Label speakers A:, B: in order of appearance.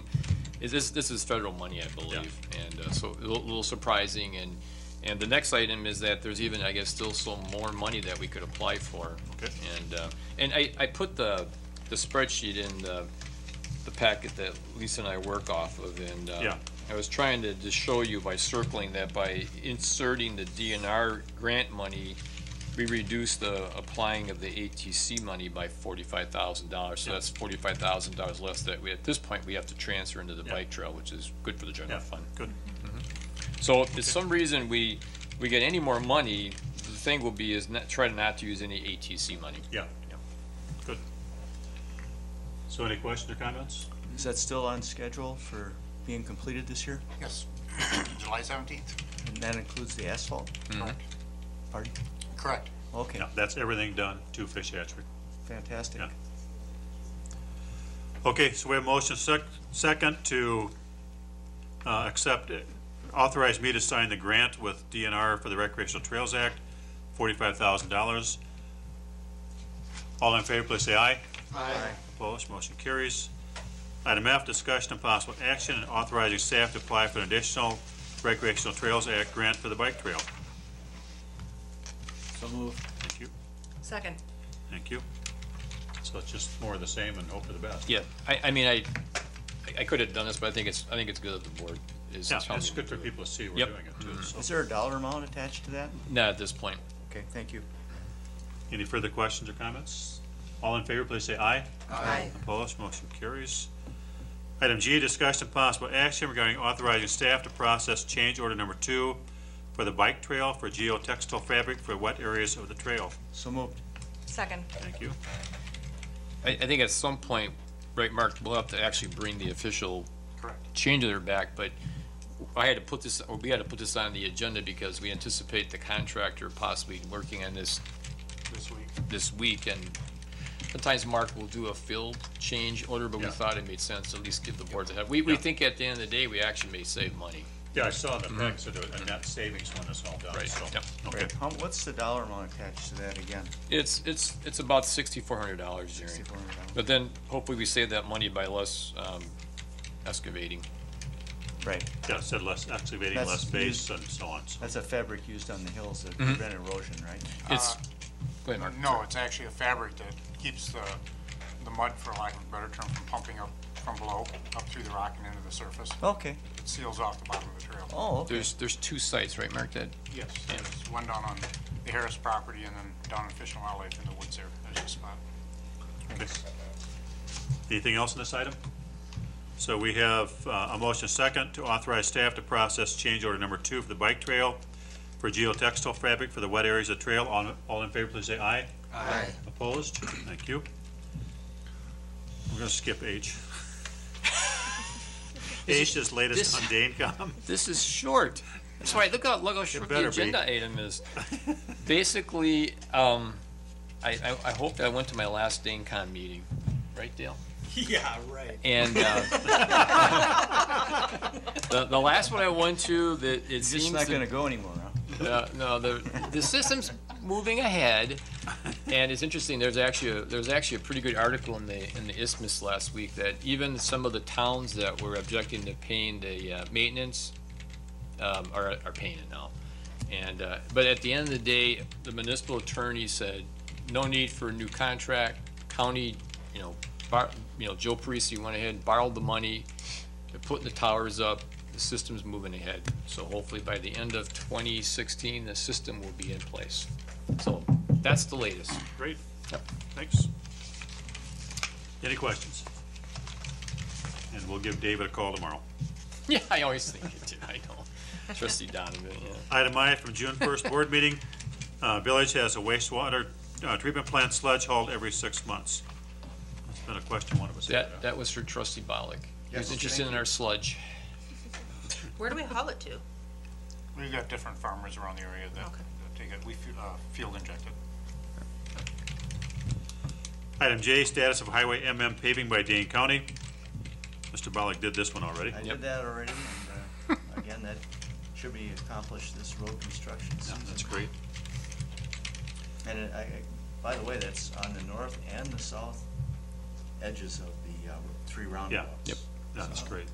A: is this, this is federal money, I believe. And uh, so a little, little surprising. And, and the next item is that there's even, I guess, still some more money that we could apply for.
B: Okay.
A: And, uh, and I, I put the, the spreadsheet in the, the packet that Lisa and I work off of and, uh,
B: Yeah.
A: I was trying to, to show you by circling that by inserting the DNR grant money, we reduced the applying of the ATC money by forty-five thousand dollars. So that's forty-five thousand dollars less that we, at this point, we have to transfer into the
B: Yeah.
A: bike trail, which is good for the
B: Yeah,
A: general fund.
B: good.
A: So if for some reason we, we get any more money, the thing will be is not, try not to use any ATC money.
B: Yeah, yeah, good. So any questions or comments?
C: Is that still on schedule for being completed this year?
D: Yes, July seventeenth,
C: And that includes the asphalt
D: correct,
C: part?
D: correct.
C: Okay,
B: Yeah, that's everything done to Fish Hatchery.
C: fantastic.
B: Yeah. Okay, so we have motion sec- second to uh, accept, it. authorize me to sign the grant with DNR for the Recreational Trails Act, forty-five thousand dollars. All in favor, please say aye.
D: Aye.
B: Opposed, motion carries. Item F, discussion and possible action and authorizing staff to apply for an additional Recreational Trails Act grant for the bike trail.
C: So moved.
B: Thank you,
E: Second.
B: thank you. So it's just more of the same and hope for the best.
A: Yeah, I, I mean, I, I could have done this, but I think it's, I think it's good that the board is.
B: Yeah,
A: telling
B: it's
A: me
B: good
A: to
B: for
A: do it.
B: people to see we're
A: Yep. Mm-hmm.
B: doing it too, so.
C: Is there a dollar amount attached to that?
A: Not at this point.
C: Okay, thank you.
B: Any further questions or comments? All in favor, please say aye.
E: Aye.
B: Opposed, motion carries. Item G, discussion of possible action regarding authorizing staff to process change order number two for the bike trail for geotextile fabric for wet areas of the trail.
C: So moved.
E: Second.
B: Thank you.
A: I, I think at some point, right, Mark, we'll have to actually bring the official change order back, but I had to put this, or we had to put this on the agenda because we anticipate the contractor possibly working on this
D: This week.
A: this week, and sometimes Mark will do a field change order, but we
B: Yeah.
A: thought it made sense to at least give the board a head. We, we
B: Yeah.
A: think at the end of the day, we actually may save money.
B: Yeah, I saw the facts of it, and that savings when it's all done,
A: Mm-hmm. Right,
B: so.
A: yep.
B: Okay,
C: How, what's the dollar amount attached to that again?
A: It's, it's, it's about sixty-four hundred dollars, Jerry.
C: Sixty-four hundred dollars.
A: But then hopefully we save that money by less, um, excavating.
C: Right,
B: yeah, it said less excavating,
C: That's
B: less base and so on, so.
C: that's a fabric used on the hills to prevent erosion, right?
A: It's, go ahead, Mark.
D: No, it's actually a fabric that keeps the, the mud, for lack of a better term, from pumping up from below, up through the rock and into the surface.
C: Okay,
D: It seals off the bottom of the trail.
C: oh, okay,
A: There's, there's two sites, right, Mark, that,
D: Yes, there's one down on the Harris property and then down in Fish and Wildlife in the woods there, there's a spot.
B: Anything else on this item? So we have uh, a motion second to authorize staff to process change order number two for the bike trail for geotextile fabric for the wet areas of trail. All, all in favor, please say aye. Aye. Opposed? Thank you. We're gonna skip H. H is latest on Danecom.
A: this is short. That's why, look how, look how short the
B: better be.
A: agenda item is. Basically, um, I, I, I hope that I went to my last DaneCon meeting, right, Dale?
F: Yeah, right.
A: And, uh, the, the last one I went to, that it
C: it's
A: seems
C: not
A: that
C: gonna go anymore, huh?
A: Uh, no, the, the system's moving ahead, and it's interesting, there's actually, a- there's actually a pretty good article in the, in the Isthmus last week that even some of the towns that were objecting to paying the uh, maintenance um, are, are paying it now. And, uh, but at the end of the day, the municipal attorney said, no need for a new contract, county, you know, bar, you know, Joe Parisi went ahead and borrowed the money, they're putting the towers up, the system's moving ahead. So hopefully by the end of twenty sixteen, the system will be in place. So that's the latest.
B: Great.
A: Yep.
B: Thanks. Any questions? And we'll give David a call tomorrow.
A: Yeah, I always think it did, I know. Trustee Donovan, yeah.
B: Item I from June first board meeting, uh, village has a wastewater, uh, treatment plant sludge hauled every six months. That's been a question one of us had.
A: That, that was for trustee Bollig. He was interested in our sludge.
E: Where do we haul it to?
D: We've got different farmers around the area that,
E: Okay.
D: that take it, we, fu- uh, field inject it.
B: Item J, status of highway MM paving by Dane County. Mr. Bollig did this one already.
C: I
A: Yep.
C: did that already, and, uh, again, that should be accomplished this road construction
B: Yeah,
C: season.
B: That's great.
C: And it- I, I- by the way, that's on the north and the south edges of the uh, three roundabouts.
B: That's great.